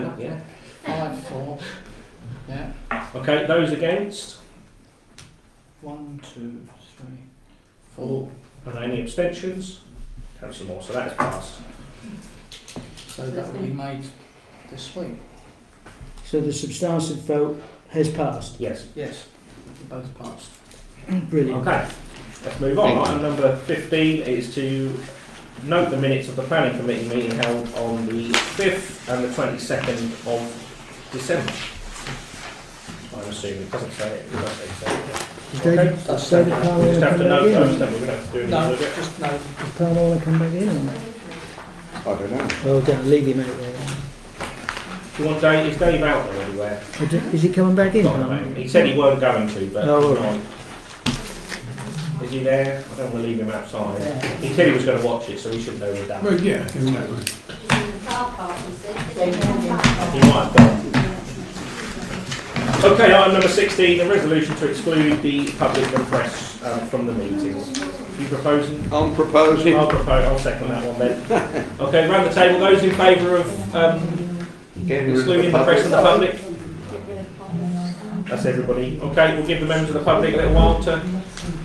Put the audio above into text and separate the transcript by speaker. Speaker 1: Five, yeah.
Speaker 2: Five, four. Yeah.
Speaker 1: Okay, those against
Speaker 2: One, two, three, four.
Speaker 1: and any abstentions? Councillor Moore, so that's passed.
Speaker 2: So that will be made this week.
Speaker 3: So the substantive vote has passed.
Speaker 1: Yes.
Speaker 2: Yes. Both passed.
Speaker 3: Brilliant.
Speaker 1: Okay, let's move on.
Speaker 4: Thank you.
Speaker 1: Item number 15 is to note the minutes of the planning committee meeting held on the 5th and the 22nd of December. I'm assuming, it doesn't say it, it doesn't say it.
Speaker 3: Is
Speaker 1: Okay,
Speaker 3: David,
Speaker 2: that's
Speaker 3: is David
Speaker 1: We
Speaker 3: Powell
Speaker 1: just have to
Speaker 3: gonna
Speaker 1: note
Speaker 3: Oh,
Speaker 1: those, then
Speaker 3: come back
Speaker 1: we're going to have to do
Speaker 2: No,
Speaker 1: another bit.
Speaker 2: just no.
Speaker 3: in? Is Powell gonna come back in or not?
Speaker 4: I don't know.
Speaker 3: Well done, leave him out there.
Speaker 1: Do you want Dave, is Dave out there anywhere?
Speaker 3: Is it- Is he coming back in?
Speaker 1: Not at the moment. He said he weren't going to, but
Speaker 3: No, all
Speaker 1: he's not. Is he there? I don't want to leave him outside.
Speaker 2: Yeah.
Speaker 1: He said he was going to watch it, so he should know we're done.
Speaker 5: Well, yeah, in that way.
Speaker 1: He might have gone. Okay, item number 16, a resolution to exclude the public and press um, from the meetings. You proposing?
Speaker 4: I'm proposing.
Speaker 1: I'll propose, I'll second that one then. Okay, round the table, those in favour of um,
Speaker 4: Getting rid of
Speaker 1: excluding the press and the
Speaker 4: public.
Speaker 1: public? That's everybody. Okay, we'll give the members of the public a little while to